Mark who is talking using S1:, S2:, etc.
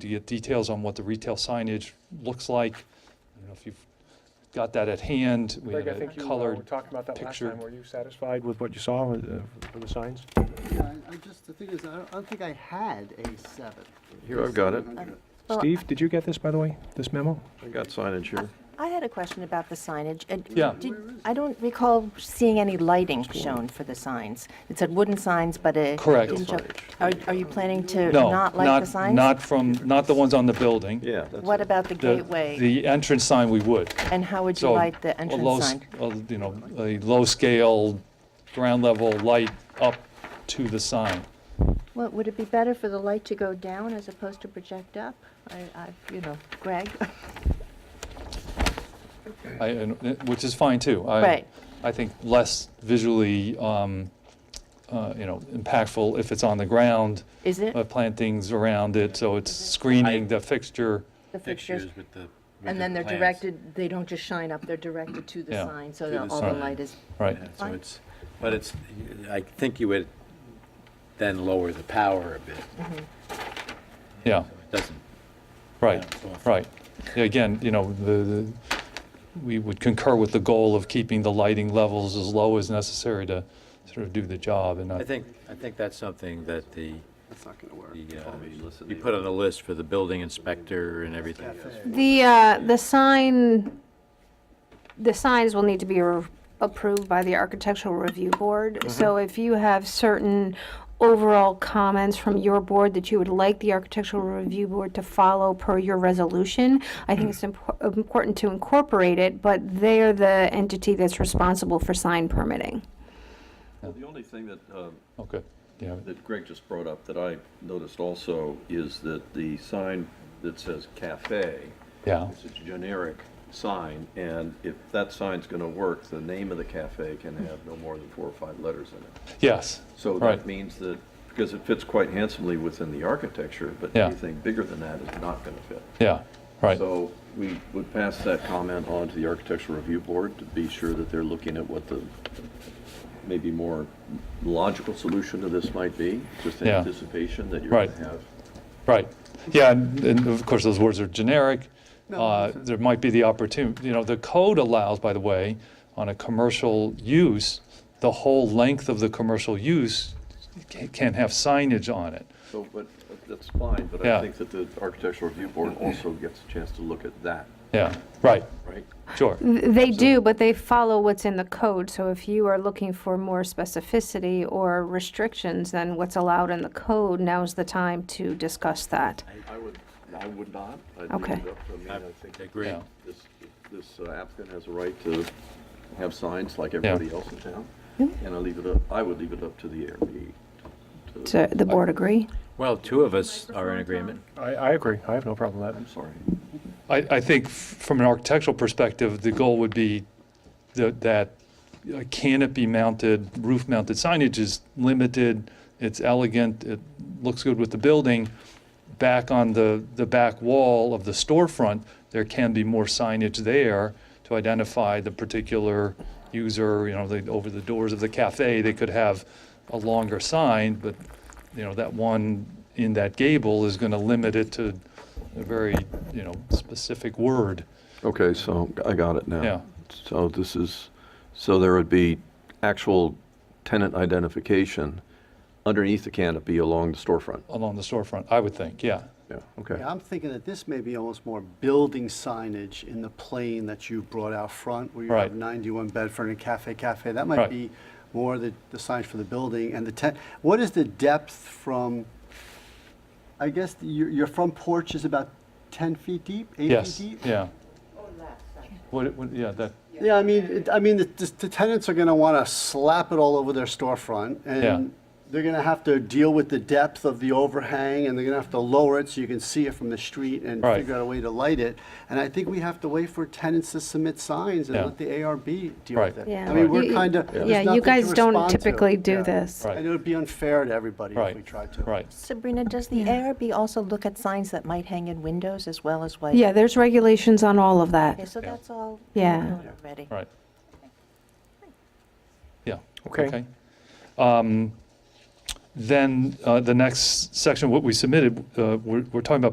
S1: to get details on what the retail signage looks like. I don't know if you've got that at hand. We
S2: Greg,
S1: had
S2: I
S1: a
S2: think you uh, were
S1: colored,
S2: talking about that last
S1: picture.
S2: time. Were you satisfied with what you saw with, uh, for the signs?
S3: Yeah, I- I just, the thing is, I don't, I don't think I had a seven.
S4: Here, I've got it.
S3: 700.
S5: Well,
S2: Steve, did you get this, by the way, this memo?
S4: I got signage here.
S5: I had a question about the signage. and
S1: Yeah.
S5: did- I don't recall seeing any lighting shown for the signs. It said wooden signs, but a.
S1: Correct.
S5: didn't show- Are, are you planning to
S1: no,
S5: not light the
S1: not,
S5: signs?
S1: not from, not the ones on the building.
S4: Yeah. that's
S5: What
S4: it.
S5: about the
S1: The-
S5: gateway?
S1: The entrance sign, we would.
S5: And how would you
S1: So
S5: light the
S1: a low
S5: entrance
S1: s-
S5: sign?
S1: a, You know, a low-scale, ground-level light up to the sign.
S6: Well, would it be better for the light to go down as opposed to project up? I, I, you know,
S5: Greg?
S1: I, and, uh, which is fine too. I-
S5: Right.
S1: I think less visually, um, uh, you know, impactful if it's on the ground,
S5: Is it
S1: uh, plantings around it, so it's screening the fixture.
S5: the fixtures?
S7: fixtures with the. with
S5: And then
S7: the
S5: they're
S7: plans.
S5: directed, they don't just shine up, they're directed to the
S1: Yeah.
S5: sign, so
S7: To
S5: that
S7: the
S5: all the
S1: sign.
S5: light is.
S1: Right.
S7: Yeah, So
S5: Fine.
S7: it's, but it's, I think you would then lower the power a bit.
S1: Yeah,
S7: So It doesn't,
S1: right,
S7: Yeah, so-
S1: right. Yeah, Again, you know, the, the- we would concur with the goal of keeping the lighting levels as low as necessary to sort of do the job and not.
S7: I think, I think that's something that the,
S3: That's not gonna work.
S7: the, uh, you put on the list for the building inspector and everything.
S8: The, uh, the sign, the signs will need to be re- approved by the architectural review board. So if you have certain overall comments from your board that you would like the architectural review board to follow per your resolution, I think it's impor- important to incorporate it, but they're the entity that's responsible for sign permitting.
S4: Well, The only thing that, uh,
S1: Okay, yeah,
S4: that Greg just brought up that I noticed also is that the sign that says cafe,
S1: yeah,
S4: it's a generic sign, and if that sign's going to work, the name of the cafe can have no more than four or five letters in it.
S1: yes,
S4: So
S1: Right.
S4: that means that, because it fits quite handsomely within the architecture, but
S1: Yeah.
S4: anything bigger than that is not going to fit.
S1: yeah, right.
S4: So we would pass that comment on to the Architectural Review Board to be sure that they're looking at what the maybe more logical solution to this might be, just in
S1: Yeah.
S4: anticipation that you're going
S1: Right.
S4: to have.
S1: Right, yeah, and and of course, those words are generic.
S3: No,
S1: Uh,
S3: that's it.
S1: There might be the opportunity, you know, the code allows, by the way, on a commercial use, the whole length of the commercial use ca- can have signage on it.
S4: So, but that's fine, but
S1: Yeah.
S4: I think that the Architectural Review Board also gets a chance to look at that,
S1: Yeah, right,
S4: right?
S1: sure,
S3: Mm-hmm.
S8: They do, but they follow what's in the code, so if you are looking for more specificity or restrictions than what's allowed in the code, now's the time to discuss that.
S4: I would, I would not. I'd leave
S8: Okay.
S4: it up to- I mean, I think
S7: Agree.
S1: yeah,
S4: this, this uh, applicant has a right to have signs like everybody else in town. And I leave it up, I would leave it up to the ARB.
S8: Does the board agree?
S7: Well, two of us are in agreement.
S2: I, I agree. I have no problem with that.
S4: I'm sorry.
S1: I, I think f- from an architectural perspective, the goal would be tha- that uh, canopy-mounted, roof-mounted signage is limited, it's elegant, it looks good with the building. Back on the, the back wall of the storefront, there can be more signage there to identify the particular user, you know, they, over the doors of the cafe, they could have a longer sign, but, you know, that one in that gable is gonna limit it to a very, you know, specific word.
S4: Okay, so I got it now.
S1: Yeah.
S4: So this is, so there would be actual tenant identification underneath the canopy along the storefront.
S1: along the storefront, I would think, yeah.
S4: Yeah, okay.
S3: Yeah, I'm thinking that this may be almost more building signage in the plane that you brought out front, where you
S1: Right.
S3: have 91 Bedford and Cafe Cafe. That
S1: Right.
S3: might be more the, the signs for the building and the tent. What is the depth from, I guess, the- your, your front porch is about 10 feet deep, 8
S1: Yes,
S3: feet deep?
S1: yeah. What, it- what, yeah, that,
S3: Yeah, I mean, it- I mean, the- the the tenants are going to want to slap it all over their storefront,
S1: Yeah.
S3: and they're going to have to deal with the depth of the overhang, and they're going to have to lower it so you can see it from the street and
S1: Right.
S3: figure out a way to light it. And I think we have to wait for tenants to submit signs and
S1: Yeah.
S3: let the ARB deal
S1: Right.
S3: with it.
S8: Yeah.
S3: I mean,
S8: You-
S3: we're
S8: you-
S3: kind of, there's
S8: yeah, you
S3: nothing to
S8: guys don't
S3: respond to.
S8: typically do
S3: Yeah.
S8: this.
S1: Right.
S3: And it would be unfair to everybody if we
S1: right,
S3: tried to.
S1: right.
S6: Sabrina, does the ARB also look at signs that might hang in windows as well as like?
S8: Yeah, there's regulations on all of
S6: Okay,
S8: that.
S6: so
S1: Yeah.
S6: that's all.
S8: Yeah.
S6: known Already.
S1: Right. Yeah.
S2: Okay.
S1: Um, Then uh, the next section, what we submitted, uh, we're we're talking about